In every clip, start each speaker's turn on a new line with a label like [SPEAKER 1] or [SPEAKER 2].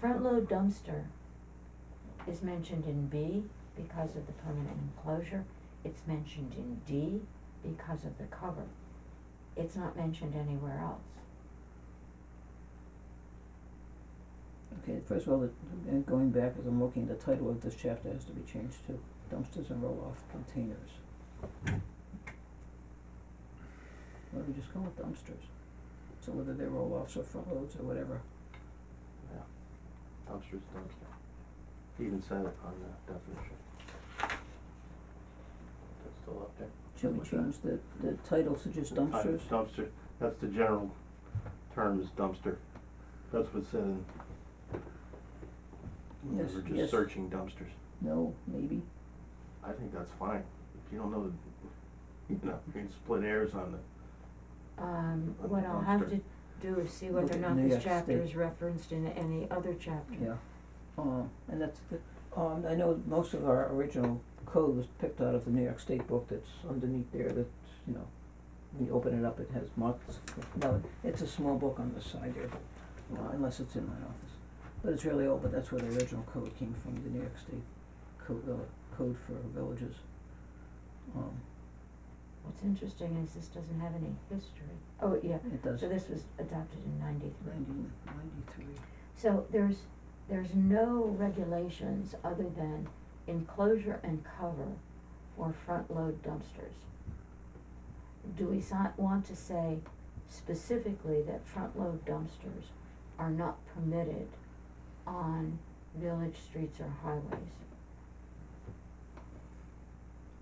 [SPEAKER 1] front load dumpster is mentioned in B because of the permanent enclosure. It's mentioned in D because of the cover. It's not mentioned anywhere else.
[SPEAKER 2] Okay, first of all, the- and going back, as I'm looking, the title of this chapter has to be changed to dumpsters and roll-off containers. Why don't we just go with dumpsters? So whether they're roll-offs or front loads or whatever,
[SPEAKER 3] Yeah, dumpster's dumpster. He Even said it on the definition. That's still up there.
[SPEAKER 2] should we
[SPEAKER 3] Something like
[SPEAKER 2] change the, the title to just
[SPEAKER 3] that.
[SPEAKER 2] dumpsters?
[SPEAKER 3] Uh, Dumpster, that's the general term is dumpster. That's what's said in. when
[SPEAKER 2] Yes,
[SPEAKER 3] We were
[SPEAKER 2] yes.
[SPEAKER 3] just searching dumpsters.
[SPEAKER 2] No, maybe,
[SPEAKER 3] I think that's fine. If you don't know, you know, you can split hairs on the,
[SPEAKER 1] Um,
[SPEAKER 3] On
[SPEAKER 1] what
[SPEAKER 3] the
[SPEAKER 1] I'll have to
[SPEAKER 3] dumpster.
[SPEAKER 1] do is see whether or
[SPEAKER 2] Look at
[SPEAKER 1] not
[SPEAKER 2] New
[SPEAKER 1] this
[SPEAKER 2] York
[SPEAKER 1] chapter
[SPEAKER 2] State.
[SPEAKER 1] is referenced in any other chapter.
[SPEAKER 2] yeah. Um, and that's the, um, I know most of our original code was picked out of the New York State book that's underneath there that, you know, when you open it up, it has marks. Now, it's a small book on the side there, uh, unless it's in my office. But it's really old, but that's where the original code came from, the New York State code, uh, code for villages. Um,
[SPEAKER 1] What's interesting is this doesn't have any history. Oh, yeah,
[SPEAKER 2] it does.
[SPEAKER 1] so this was adopted in ninety-three.
[SPEAKER 2] 90 93.
[SPEAKER 1] So there's, there's no regulations other than enclosure and cover for front load dumpsters. Do we si- want to say specifically that front load dumpsters are not permitted on village streets or highways?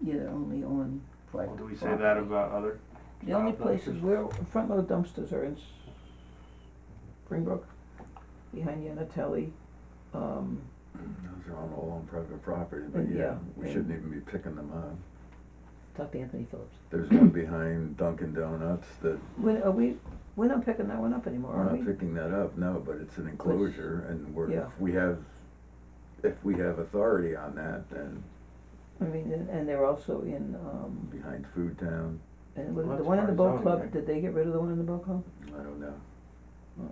[SPEAKER 2] Yeah, they're only on private
[SPEAKER 3] well, do we say that
[SPEAKER 2] property.
[SPEAKER 3] about other?
[SPEAKER 2] The only
[SPEAKER 3] Uh,
[SPEAKER 2] places
[SPEAKER 3] dumpsters.
[SPEAKER 2] where front load dumpsters are in S- Springbrook, behind Yanatelli, um,
[SPEAKER 4] Those are all on private property, but
[SPEAKER 2] And, yeah,
[SPEAKER 4] yeah, we shouldn't
[SPEAKER 2] and-
[SPEAKER 4] even be picking them up.
[SPEAKER 2] talk to Anthony Phillips.
[SPEAKER 4] There's one behind Dunkin' Donuts that,
[SPEAKER 2] When, are we, we're not picking that one up anymore,
[SPEAKER 4] we're
[SPEAKER 2] are we?
[SPEAKER 4] not picking that up, no, but it's an enclosure and we're,
[SPEAKER 2] Yeah.
[SPEAKER 4] if we have, if we have authority on that, then
[SPEAKER 2] I mean, and, and they're also in, um,
[SPEAKER 4] behind Food Town,
[SPEAKER 2] and was it
[SPEAKER 3] Well,
[SPEAKER 2] the
[SPEAKER 3] that's
[SPEAKER 2] one in the
[SPEAKER 3] part of
[SPEAKER 2] boat
[SPEAKER 3] zoning,
[SPEAKER 2] club,
[SPEAKER 3] right?
[SPEAKER 2] did they get rid of the one in the boat club?
[SPEAKER 4] I don't know.
[SPEAKER 2] Oh.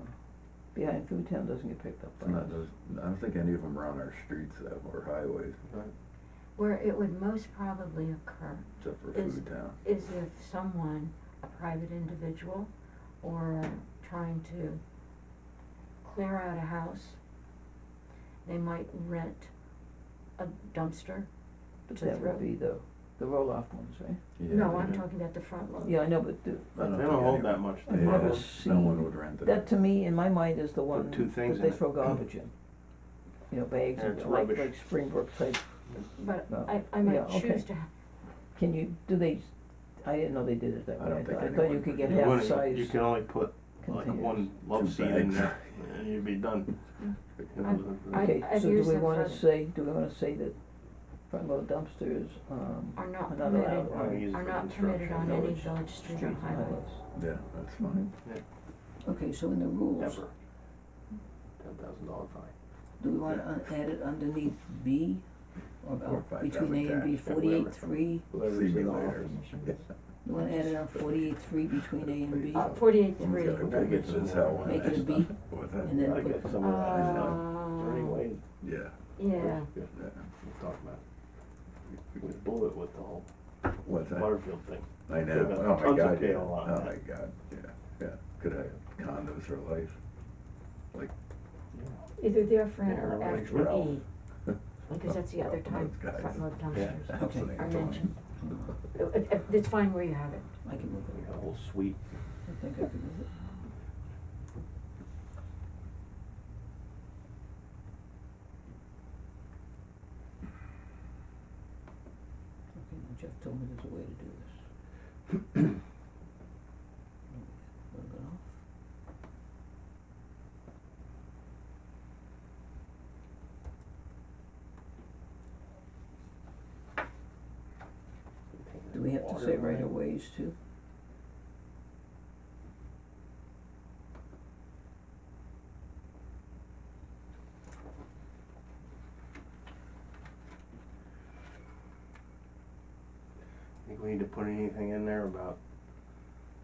[SPEAKER 2] Behind Food Town doesn't get picked up
[SPEAKER 4] It's
[SPEAKER 2] by
[SPEAKER 4] not
[SPEAKER 2] us.
[SPEAKER 4] those, I don't think any of them are on our streets though, or highways,
[SPEAKER 3] Right.
[SPEAKER 1] Where it would most probably occur
[SPEAKER 4] except for
[SPEAKER 1] Is-
[SPEAKER 4] Food Town.
[SPEAKER 1] is if someone, a private individual, or trying to clear out a house, they might rent a dumpster.
[SPEAKER 2] But
[SPEAKER 1] to
[SPEAKER 2] that
[SPEAKER 1] throw.
[SPEAKER 2] would be the, the roll-off ones, right?
[SPEAKER 4] Yeah,
[SPEAKER 1] No, I'm
[SPEAKER 4] they-
[SPEAKER 1] talking about the front load.
[SPEAKER 2] Yeah, I know, but the,
[SPEAKER 4] I
[SPEAKER 3] They
[SPEAKER 4] think
[SPEAKER 3] don't hold
[SPEAKER 4] any-
[SPEAKER 3] that much.
[SPEAKER 2] I've
[SPEAKER 3] do
[SPEAKER 2] never
[SPEAKER 3] they?
[SPEAKER 4] Yeah, no
[SPEAKER 2] seen-
[SPEAKER 4] one would rent it.
[SPEAKER 2] That to me, in my mind, is the one
[SPEAKER 3] two things
[SPEAKER 2] that
[SPEAKER 3] in
[SPEAKER 2] they
[SPEAKER 3] it.
[SPEAKER 2] throw garbage in. You know, bags
[SPEAKER 3] And
[SPEAKER 2] and
[SPEAKER 3] it's
[SPEAKER 2] like,
[SPEAKER 3] rubbish.
[SPEAKER 2] like Springbrook type,
[SPEAKER 1] But
[SPEAKER 2] No.
[SPEAKER 1] I, I
[SPEAKER 2] Yeah,
[SPEAKER 1] might
[SPEAKER 2] okay.
[SPEAKER 1] choose to, ha-
[SPEAKER 2] can you, do they, I didn't know they did it that
[SPEAKER 4] I
[SPEAKER 2] way, I
[SPEAKER 4] don't
[SPEAKER 2] thought,
[SPEAKER 4] think
[SPEAKER 2] I thought you
[SPEAKER 4] anyone
[SPEAKER 2] could
[SPEAKER 4] would.
[SPEAKER 2] get
[SPEAKER 3] You
[SPEAKER 2] half
[SPEAKER 3] wouldn't-
[SPEAKER 2] size
[SPEAKER 3] You can only put like
[SPEAKER 2] containers.
[SPEAKER 3] one love
[SPEAKER 4] Two
[SPEAKER 3] seat in
[SPEAKER 4] bags.
[SPEAKER 3] there and you'd be done. You know, the- the-
[SPEAKER 1] I-
[SPEAKER 2] Okay,
[SPEAKER 1] I've
[SPEAKER 2] so do
[SPEAKER 1] used
[SPEAKER 2] we
[SPEAKER 1] them
[SPEAKER 2] wanna
[SPEAKER 1] for-
[SPEAKER 2] say, do we wanna say that front load dumpsters, um,
[SPEAKER 1] are not
[SPEAKER 2] Another
[SPEAKER 1] permitted,
[SPEAKER 2] loud
[SPEAKER 3] I
[SPEAKER 2] one.
[SPEAKER 3] use it
[SPEAKER 1] are
[SPEAKER 3] for
[SPEAKER 1] not permitted
[SPEAKER 3] construction.
[SPEAKER 1] on any
[SPEAKER 2] village
[SPEAKER 1] village street
[SPEAKER 2] streets
[SPEAKER 1] or
[SPEAKER 2] and
[SPEAKER 1] highway.
[SPEAKER 2] highways?
[SPEAKER 4] Yeah, that's fine.
[SPEAKER 2] Okay, so in the rules,
[SPEAKER 3] Never. Ten thousand dollar fine.
[SPEAKER 2] do we wanna un- add it underneath B, or
[SPEAKER 4] Or
[SPEAKER 2] about
[SPEAKER 4] five
[SPEAKER 2] between A and B,
[SPEAKER 4] thousand tax, yeah,
[SPEAKER 2] forty-eight
[SPEAKER 4] whatever.
[SPEAKER 2] three?
[SPEAKER 4] See me later.
[SPEAKER 2] You wanna add it on forty-eight three between A and B,
[SPEAKER 1] Uh, forty-eight
[SPEAKER 4] Someone's
[SPEAKER 1] three,
[SPEAKER 4] gotta
[SPEAKER 3] Gotta
[SPEAKER 4] pick
[SPEAKER 3] get
[SPEAKER 4] this
[SPEAKER 3] some
[SPEAKER 4] out.
[SPEAKER 3] more.
[SPEAKER 2] Make it a B,
[SPEAKER 4] What's that?
[SPEAKER 2] and then
[SPEAKER 3] Gotta
[SPEAKER 2] put-
[SPEAKER 3] get some of that, you know. Is there any
[SPEAKER 1] Uh,
[SPEAKER 3] way-
[SPEAKER 4] Yeah,
[SPEAKER 1] yeah,
[SPEAKER 3] Yeah,
[SPEAKER 4] yeah.
[SPEAKER 3] we'll talk about it. We blew it with the whole
[SPEAKER 4] What's that?
[SPEAKER 3] Butterfield thing.
[SPEAKER 4] I know,
[SPEAKER 3] Could've had
[SPEAKER 4] oh my
[SPEAKER 3] tons of
[SPEAKER 4] god, yeah,
[SPEAKER 3] kale on
[SPEAKER 4] oh
[SPEAKER 3] that.
[SPEAKER 4] my god, yeah, yeah, could have condos for life,
[SPEAKER 1] either their front
[SPEAKER 3] Yeah,
[SPEAKER 1] or
[SPEAKER 3] like
[SPEAKER 1] after E,
[SPEAKER 4] Ralph.
[SPEAKER 1] because that's the other
[SPEAKER 4] Ralph
[SPEAKER 1] time
[SPEAKER 4] knows guys.
[SPEAKER 1] front load
[SPEAKER 3] Yeah.
[SPEAKER 1] dumpsters.
[SPEAKER 4] absolutely.
[SPEAKER 1] Are mentioned. It- it- it's fine where you have it.
[SPEAKER 2] I can move
[SPEAKER 3] We
[SPEAKER 2] it,
[SPEAKER 3] got a whole suite.
[SPEAKER 2] I think I can move it, okay, now Jeff told me there's a way to do this. What about off? Do we have to say right of ways too?
[SPEAKER 3] Think we need to put anything in there about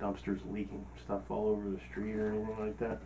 [SPEAKER 3] dumpsters leaking stuff all over the street or anything like that?